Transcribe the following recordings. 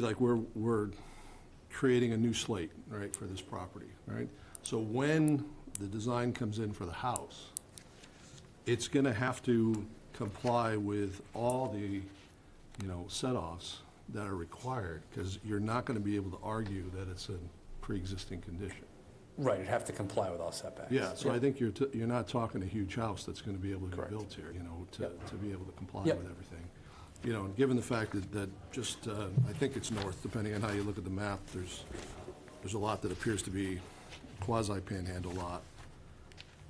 like we're, we're creating a new slate, right, for this property, right? So when the design comes in for the house, it's gonna have to comply with all the, you know, set-offs that are required, because you're not gonna be able to argue that it's a pre-existing condition. Right, it'd have to comply with all setbacks. Yeah, so I think you're, t- you're not talking a huge house that's gonna be able to be Correct. built here, you know, to, Yep. to be able to comply Yep. with everything. You know, and given the fact that, that just, uh, I think it's north, depending on how you look at the map, there's, there's a lot that appears to be quasi-panhandle lot.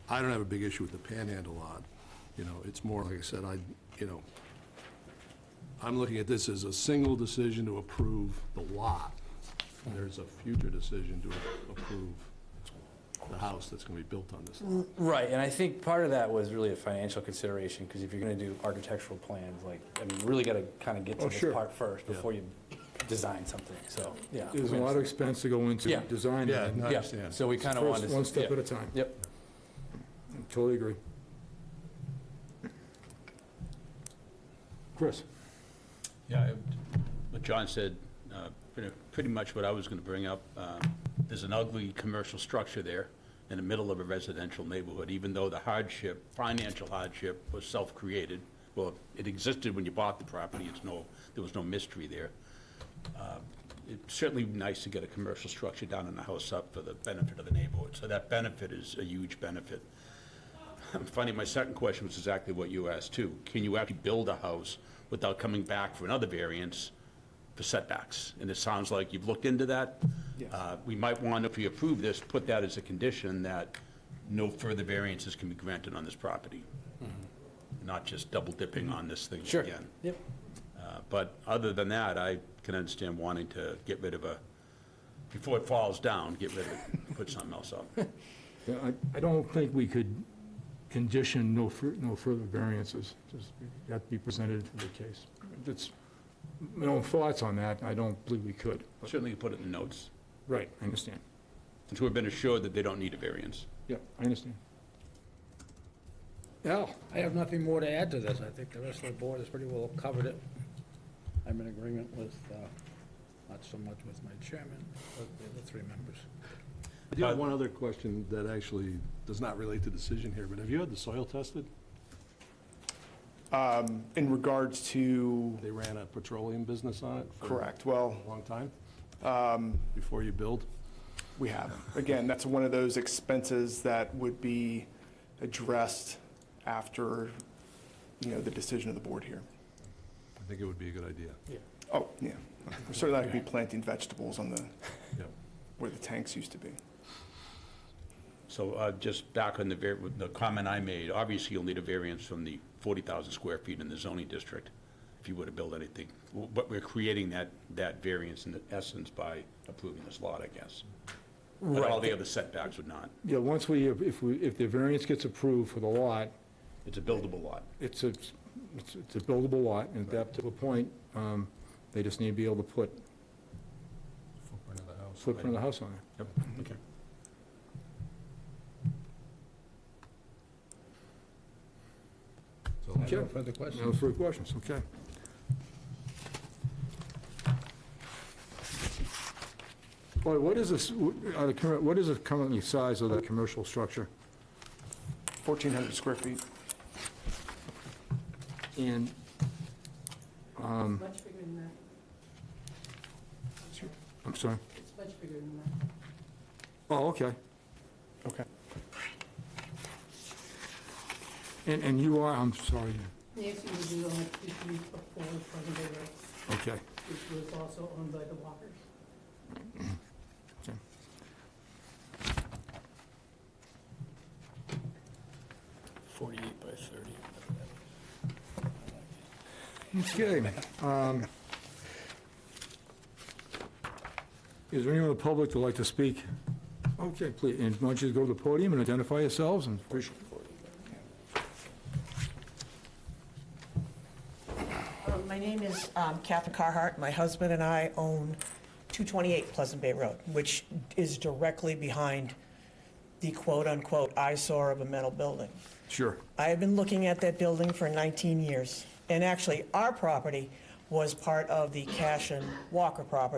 I don't have a big issue with the panhandle lot, you know, it's more, like I said, I, you know, I'm looking at this as a single decision to approve the lot. And There's a future decision to approve the house that's gonna be built on this lot. Right, and I think part of that was really a financial consideration, because if you're gonna do architectural plans, like, I mean, you really gotta kind of get to Oh, this sure. part first before you design something, so, yeah. There's a lot of expense to go into Yeah. design. Yeah, and no, I Yeah, understand. so we kind of wanted First, to. one step yeah. at a time. Yep, Totally agree. Chris? Yeah, I- what John said, uh, pretty- pretty much what I was going to bring up. Um, There's an ugly commercial structure there in the middle of a residential neighborhood, even though the hardship, financial hardship was self-created. Well, it existed when you bought the property, it's no, there was no mystery there. Uh, It's certainly nice to get a commercial structure down in the house up for the benefit of the neighborhood, so that benefit is a huge benefit. I'm finding my second question was exactly what you asked too. Can you actually build a house without coming back for another variance for setbacks? And it sounds like you've looked into that. Uh, We might want, if we approve this, put that as a condition that no further variances can be granted on this property. Not just double dipping on this thing sure, again. yep. Uh, But other than that, I can understand wanting to get rid of a, before it falls down, get rid of it, put something else up. Yeah, I- I don't think we could condition no fur- no further variances. Just Got to be presented to the case. That's, my own thoughts on that, I don't believe we could. Certainly put it in the notes, Right, I understand. since we've been assured that they don't need a variance. Yeah, I understand. Al? I have nothing more to add to this. I think the rest of the board has pretty well covered it. I'm in agreement with, uh, not so much with my chairman, but the other three members. I do have one other question that actually does not relate to decision here, but have you had the soil tested? Um, In regards to, They ran a petroleum business on it? for correct, well, A long time? Before you build? we have. Again, that's one of those expenses that would be addressed after, you know, the decision of the board here. I think it would be a good idea. Oh, yeah. Certainly, I could be planting vegetables on the, Yeah. where the tanks used to be. So uh, just back on the, var- with the comment I made, obviously you'll need a variance from the 40,000 square feet in the zoning district if you were to build anything. W- But we're creating that, that variance in essence by approving this lot, I guess. But all the other setbacks would not. Yeah, once we, if we, if the variance gets approved for the lot, It's a buildable lot. it's a, it's it's a buildable lot, and at that particular point, um, they just need to be able to put Footprint of the house. footprint of the house on it. Yep, okay. So- Okay. No further No questions? further questions, okay. Boy, what is this, are the current- what is the currently size of the commercial structure? 1,400 square feet. And It's much bigger than that. I'm sorry. It's much bigger than that. Oh, okay. Okay. And, and you are, I'm sorry, Nancy was the only two three four in front of the rest, okay. which was also owned by the Walkers. Forty-eight by thirty. Okay. um, Is there anyone in the public that'd like to speak? Okay, please, and why don't you go to the podium and identify yourselves and... Um, My name is um, Catherine Carhart. My husband and I own 228 Pleasant Bay Road, which is directly behind the quote-unquote eyesore of a metal building. Sure. I have been looking at that building for 19 years. And actually, our property was part of the Cash and Walker property.